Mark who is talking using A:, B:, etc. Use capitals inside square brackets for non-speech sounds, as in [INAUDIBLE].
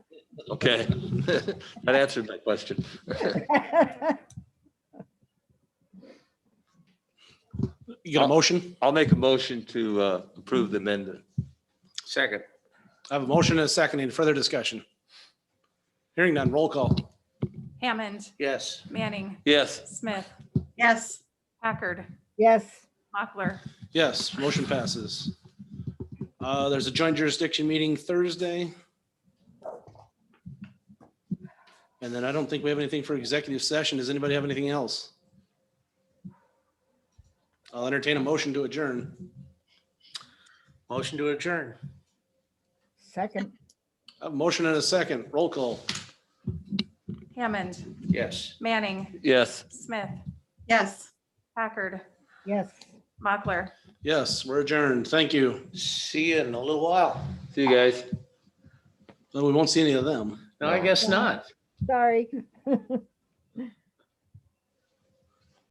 A: Okay. [LAUGHS] That answered my question.
B: You
C: Oh.
B: got a motion?
A: I'll make a motion to uh, approve the amendment.
C: Second.
B: I have a motion and a second. Any further discussion? Hearing none, roll call.
D: Hammond,
C: Yes.
D: Manning,
A: Yes,
D: Smith,
E: Yes,
D: Packard,
F: [LAUGHS] Yes,
D: Mochler.
B: Yes, motion passes. Uh, There's a joint jurisdiction meeting Thursday. And then I don't think we have anything for executive session. Does anybody have anything else? I'll entertain a motion to adjourn.
C: Motion to adjourn.
F: second,
B: I have A motion and a second. Roll call.
D: Hammond,
C: Yes.
D: Manning,
A: yes.
D: Smith,
E: yes.
D: Packard,
F: yes.
D: Mochler.
B: Yes, we're adjourned. Thank you.
C: See you in a little while.
A: See you guys.
B: No, we won't see any of them.
C: No, I guess not.
F: Sorry.